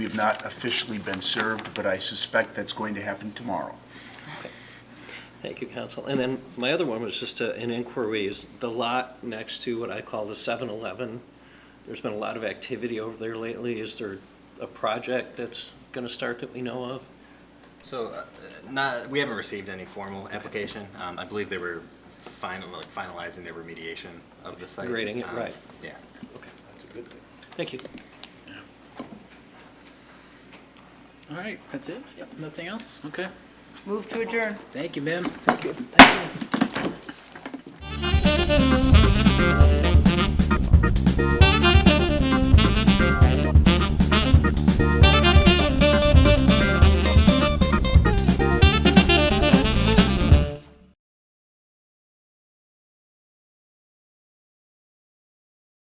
We have not officially been served, but I suspect that's going to happen tomorrow. Thank you, Council. And then my other one was just uh, an inquiry, is the lot next to what I call the 7-Eleven. There's been a lot of activity over there lately. Is there a project that's going to start that we know of? So, uh, not, we haven't received any formal application. Um, I believe they were final, like finalizing their remediation of the site. Grading it, Um, right. Yeah. Thank you. All right, that's it? Yep. Nothing else? Okay. Move to adjourn. Thank you, ma'am.